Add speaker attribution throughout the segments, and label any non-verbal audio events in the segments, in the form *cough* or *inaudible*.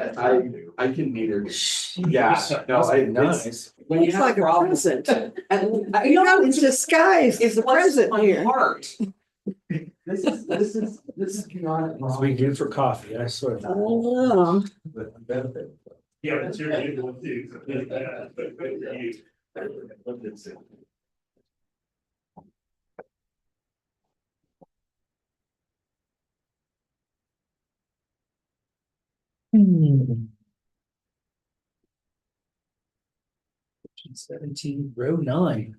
Speaker 1: I, I can neither, yeah, no, I, it's,
Speaker 2: Nice.
Speaker 1: when you
Speaker 3: It's
Speaker 1: have
Speaker 3: like a
Speaker 1: problems.
Speaker 3: present.
Speaker 1: And uh, I-
Speaker 3: You know, it's disguised
Speaker 1: It's
Speaker 3: as a present here.
Speaker 1: Heart. This is, this is, this is beyond.
Speaker 2: That's what we do for coffee, I swear.
Speaker 3: I know.
Speaker 2: Benefit.
Speaker 4: Yeah, but you're a good one too. Yeah, but good for you.
Speaker 2: Seventeen, row nine.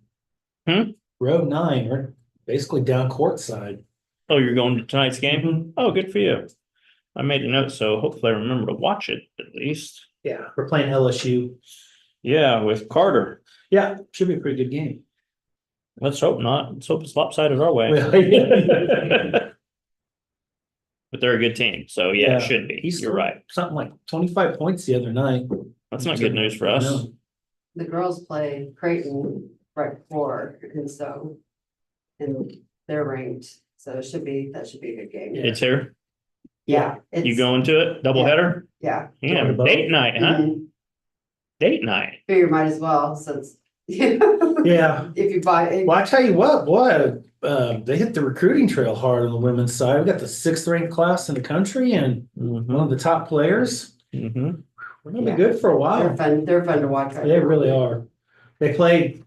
Speaker 5: Hmm?
Speaker 2: Row nine, or basically down court side.
Speaker 5: Oh, you're going to tonight's game? Oh, good for you. I made a note, so hopefully I remember to watch it at least.
Speaker 2: Yeah, we're playing LSU.
Speaker 5: Yeah, with Carter.
Speaker 2: Yeah, should be a pretty good game.
Speaker 5: Let's hope not. Let's hope it's lopsided our way. *laughs* But they're a good team, so yeah,
Speaker 2: Yeah.
Speaker 5: it should be.
Speaker 2: He's
Speaker 5: You're right.
Speaker 2: Something like twenty-five points the other night.
Speaker 5: That's not good news for us.
Speaker 2: No.
Speaker 6: the girls play Creighton right before, and so. And they're ranked, so it should be, that should be a good game.
Speaker 5: It's here.
Speaker 6: Yeah.
Speaker 5: You
Speaker 6: it's-
Speaker 5: going to it? Doubleheader?
Speaker 6: Yeah.
Speaker 5: You gonna have a date night, huh?
Speaker 6: mhm.
Speaker 5: Date night.
Speaker 6: Figure might as well since. *laughs* If
Speaker 2: Yeah,
Speaker 6: you buy, it,
Speaker 2: well, I tell you what, boy, uh, they hit the recruiting trail hard on the women's side. We got the sixth ranked class in the country and
Speaker 5: Mm-hmm,
Speaker 2: one of the top players.
Speaker 5: Mhm.
Speaker 2: We're gonna be
Speaker 6: Yeah.
Speaker 2: good for a
Speaker 6: they're
Speaker 2: while.
Speaker 6: fun, they're fun to watch. right
Speaker 2: They
Speaker 6: now.
Speaker 2: really are. They play.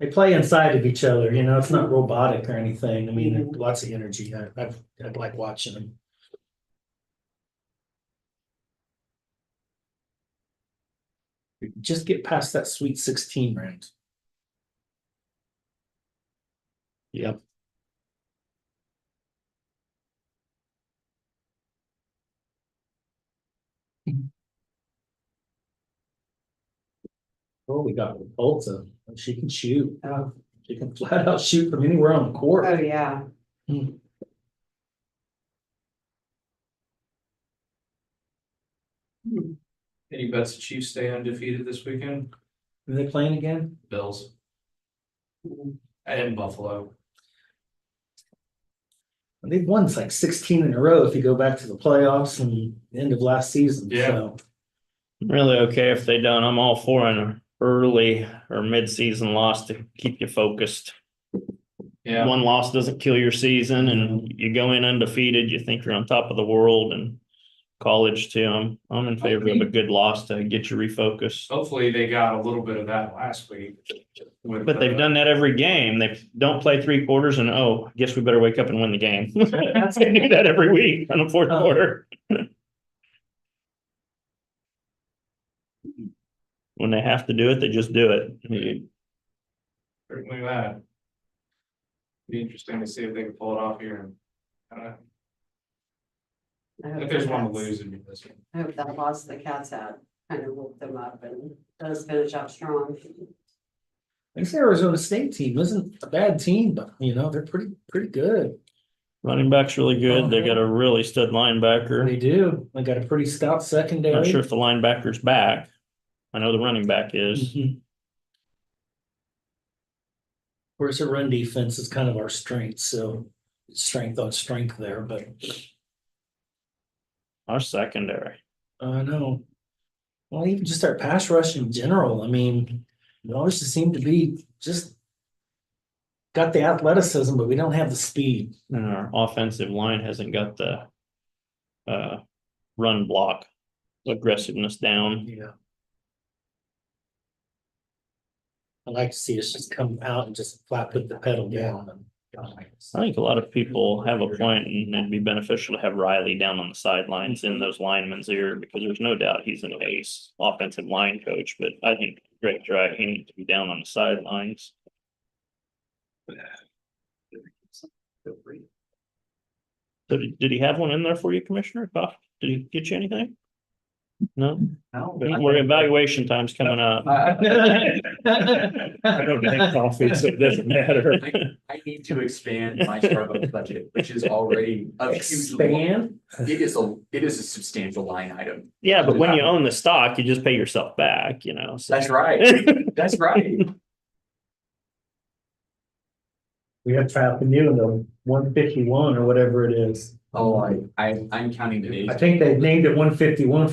Speaker 2: They play inside of each other, you know, it's not robotic or anything. I mean,
Speaker 6: Mhm.
Speaker 2: lots of energy. I, I've, I like watching them. We Just get past that sweet sixteen round.
Speaker 5: Yep.
Speaker 2: Oh, we got Olta. She can shoot.
Speaker 6: Oh,
Speaker 2: She can flat out shoot from anywhere on the
Speaker 6: oh,
Speaker 2: court.
Speaker 6: yeah.
Speaker 7: Any bets the Chiefs stay undefeated this weekend?
Speaker 2: Are they playing again?
Speaker 7: Bills
Speaker 6: Mm-hmm.
Speaker 7: and Buffalo.
Speaker 2: They've won like sixteen in a row if you go back to the playoffs and the end of last season.
Speaker 7: Yeah.
Speaker 2: So
Speaker 5: Really okay if they don't. I'm all for an early or mid-season loss to keep you focused.
Speaker 7: Yeah,
Speaker 5: one loss doesn't kill your season and you go in undefeated, you think you're on top of the world and college too. I'm, I'm in favor of a good loss to get you refocused.
Speaker 7: hopefully they got a little bit of that last week. with,
Speaker 5: But they've
Speaker 7: uh,
Speaker 5: done that every game. They don't play three quarters and, oh, I guess we better wake up and win the game. *laughs* They do that every week on the fourth quarter. When they have to do it, they just do it. You-
Speaker 7: Certainly that. Be interesting to see if they can pull it off here and. uh,
Speaker 6: I
Speaker 7: I
Speaker 6: hope
Speaker 7: think there's
Speaker 6: the
Speaker 7: one to
Speaker 6: Cats-
Speaker 7: lose in this one.
Speaker 6: I hope that loss the Cats had kind of woke them up and does finish out strong.
Speaker 2: this Arizona State team isn't a bad team, but you know, they're pretty, pretty good.
Speaker 5: Running back's really good. They got a really stud linebacker.
Speaker 2: They do. They got a pretty stout secondary.
Speaker 5: Not sure if the linebacker's back. I know the running back is.
Speaker 2: Mhm. Whereas the run defense is kind of our strength, so strength on strength there, but
Speaker 5: Our secondary.
Speaker 2: I know. uh, Well, even just our pass rush in general, I mean, we always just seem to be just got the athleticism, but we don't have the speed.
Speaker 5: And our offensive line hasn't got the uh run block aggressiveness down.
Speaker 2: Yeah. I like to see us just come out and just flat put the pedal down and. *laughs*
Speaker 5: I think a lot of people have a point and it'd be beneficial to have Riley down on the sidelines in those linemen's ear because there's no doubt he's an ace offensive line coach, but I think Greg Dry, he needs to be down on the sidelines. So did did he have one in there for you, Commissioner? Goff? Did he get you anything? No? Don't worry, evaluation time's coming up.
Speaker 2: I
Speaker 5: *laughs* I don't drink coffee, so it doesn't matter.
Speaker 1: I need to expand my Starbucks budget, which is already a huge.
Speaker 2: Expand.
Speaker 1: It is a, it is a substantial line item.
Speaker 5: Yeah, but when you own the stock, you just pay yourself back, you know, so. *laughs*
Speaker 1: That's right, that's right.
Speaker 2: We have traffic new in the one fifty-one or whatever it is.
Speaker 1: Oh, I, I, I'm counting the days.
Speaker 2: I think they named it one fifty-one